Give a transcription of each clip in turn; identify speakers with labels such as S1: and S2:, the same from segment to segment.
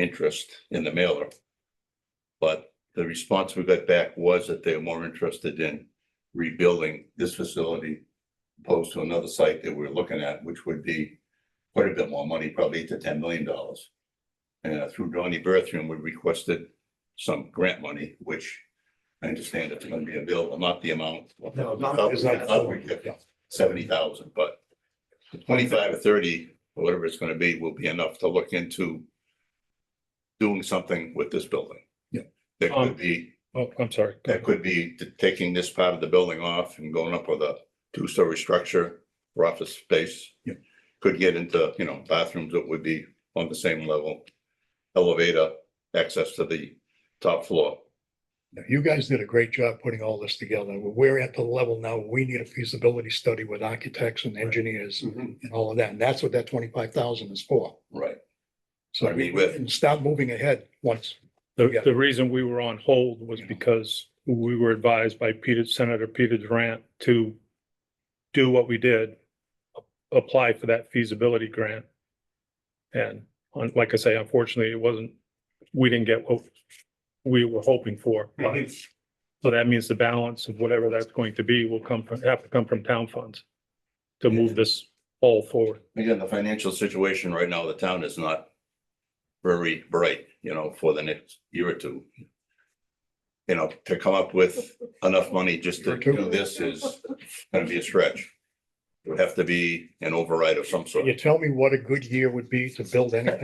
S1: interest in the mailer. But the response we got back was that they're more interested in rebuilding this facility opposed to another site that we're looking at, which would be quite a bit more money, probably eight to ten million dollars. And uh, through Donnie Bertham, we requested some grant money, which I understand it's gonna be available, not the amount.
S2: No, not- it's not-
S1: Seventy thousand, but the twenty-five or thirty, or whatever it's gonna be, will be enough to look into doing something with this building.
S2: Yeah.
S1: That
S3: Um,
S1: could be
S3: Oh, I'm sorry.
S1: that could be t- taking this part of the building off and going up with a two-story structure for office space.
S2: Yep.
S1: Could get into, you know, bathrooms that would be on the same level, elevator, access to the top floor.
S2: Now, You guys did a great job putting all this together. We're at the level now, we need a feasibility study with architects and engineers
S4: Mm-hmm.
S2: and all of that. And that's what that twenty-five thousand is for.
S1: Right.
S2: So
S1: I
S2: we
S1: mean, with-
S2: can start moving ahead once.
S3: The, the reason we were on hold was because we were advised by Peter, Senator Peter Durant to do what we did, apply for that feasibility grant. And on, like I say, unfortunately, it wasn't, we didn't get what we were hoping for.
S4: Mm-hmm.
S3: So that means the balance of whatever that's going to be will come from, have to come from town funds to move this all forward.
S1: Again, the financial situation right now, the town is not very bright, you know, for the next year or two. You know, to come up with enough money just to do this is gonna be a stretch. It would have to be an override of some
S2: Can you
S1: sort,
S2: tell me what a good year would be to build anything?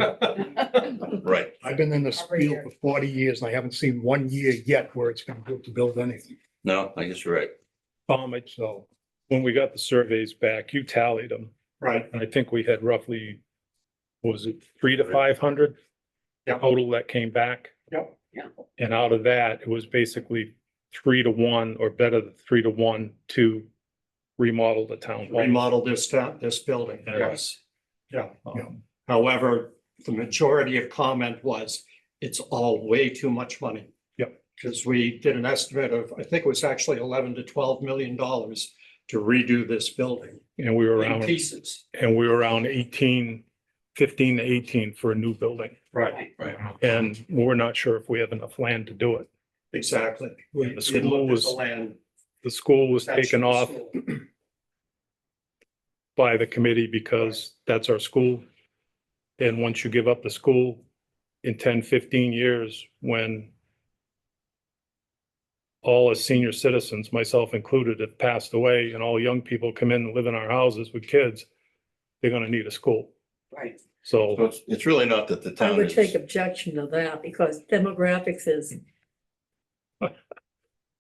S1: right?
S2: I've been in this
S5: Every
S2: field
S5: year.
S2: for forty years and I haven't seen one year yet where it's been good to build anything.
S1: No, I guess you're right.
S3: Um, it's,
S2: So.
S3: when we got the surveys back, you tallied them.
S2: Right.
S3: And I think we had roughly, what was it three to five hundred?
S2: Yeah.
S3: Total that came back.
S2: Yep.
S5: Yeah.
S3: And out of that, it was basically three to one or better than three to one to remodel the town. hall.
S4: remodel this town, this building,
S3: Yeah.
S4: yes. Yeah.
S2: Yeah.
S3: Um,
S4: However, the majority of comment was, it's all way too much money.
S3: Yep.
S4: Because we did an estimate of, I think it was actually eleven to twelve million dollars to redo this building
S3: And we were
S4: in
S3: around,
S4: pieces.
S3: and we were around eighteen, fifteen to eighteen for a new building.
S4: Right.
S3: And we're not sure if we have enough land to do it.
S4: Exactly. We
S3: And the
S4: we
S3: school
S4: looked at
S3: was
S4: the land.
S3: The school was taken off
S4: That's-
S3: by the committee because that's our school. And once you give up the school in 10, 15 years, when all as senior citizens, myself included, have passed away and all young people come in and live in our houses with kids, they're going to need a school.
S5: Right.
S1: So
S3: So
S1: it's, it's really not that the
S5: I
S1: town
S5: would take
S1: is,
S5: objection to that because demographics is.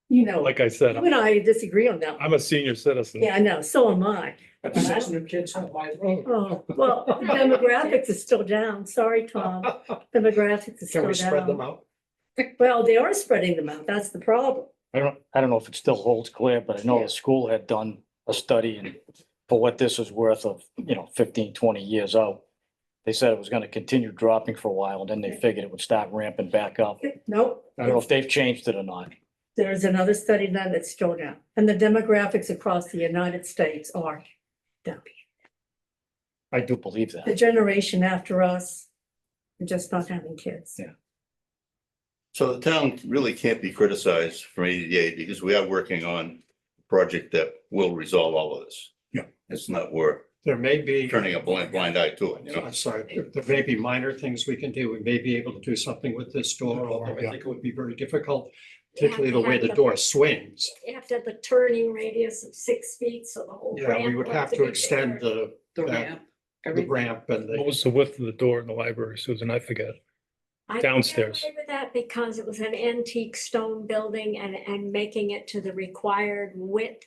S5: You know,
S3: like I said,
S5: you and I disagree on that.
S3: I'm a senior citizen.
S5: Yeah, I know, so am I.
S4: That's six new kids on my road.
S5: Oh, well, the demographics is still down. Sorry, Tom. Demographics is
S4: Can
S5: still
S4: we spread them
S5: down.
S4: out?
S5: Well, they are spreading them out. That's the problem.
S6: I don't, I don't know if it still holds clear, but I know
S5: Yeah.
S6: the school had done a study and for what this is worth of, you know, 15, 20 years out. They said it was gonna continue dropping for a while and then they figured it would start ramping back up.
S5: Nope.
S6: I don't know if they've changed it or not.
S5: There's another study done that's still down. And the demographics across the United States are down.
S6: I do believe
S5: The
S6: that.
S5: generation after us, are just not having kids.
S6: Yeah.
S1: so the town really can't be criticized for ADA because we are working on a project that will resolve all of this.
S2: Yeah.
S1: It's not, we're
S4: There may be.
S1: turning a blind, blind eye to it, you know?
S4: I'm sorry, there- there may be minor things we can do. We may be able to do something with this door, although I
S2: Yeah.
S4: think it would be very difficult,
S7: You have
S4: particularly
S7: to
S4: the way
S7: have
S4: the
S7: the-
S4: door swings.
S7: You have to have the turning radius of six feet, so the whole.
S4: Yeah, we
S7: ramp
S4: would have
S7: be
S4: to extend
S7: bigger.
S4: the,
S5: The
S4: that- the ramp and
S3: What
S4: the,
S3: was the width of the door in the library, Susan? I forget.
S7: I could get
S3: downstairs.
S7: away With that because it was an antique stone building and, and making it to the required width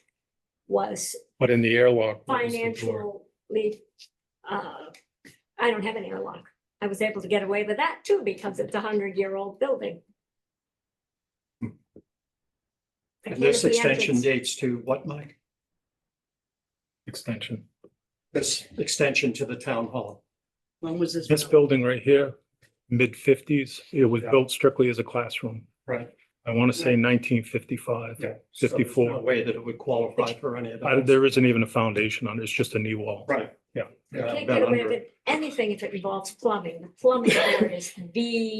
S7: was
S3: But in the airlock. what was the door?
S7: financially, uh, I don't have an airlock. I was able to get away with that too because it's a hundred-year-old building. I
S4: and
S7: can't
S4: this
S7: have the
S4: extension
S7: entrance.
S4: dates to what, Mike?
S3: Extension.
S4: This extension to the town hall.
S8: When was this?
S3: This
S8: built?
S3: building right here, mid fifties, it was
S4: Yeah.
S3: built strictly as a classroom.
S4: Right.
S3: I want to say nineteen fifty-five,
S4: Yeah. So there's no
S3: fifty-four.
S4: Way that it would qualify for any of
S3: I-
S4: that.
S3: There isn't even a foundation on it. It's just a knee wall.
S4: Right.
S3: Yeah.
S4: Yeah, been
S7: Can't get away
S4: under
S7: with
S4: it.
S7: anything if it involves plumbing. The Plumbing board is the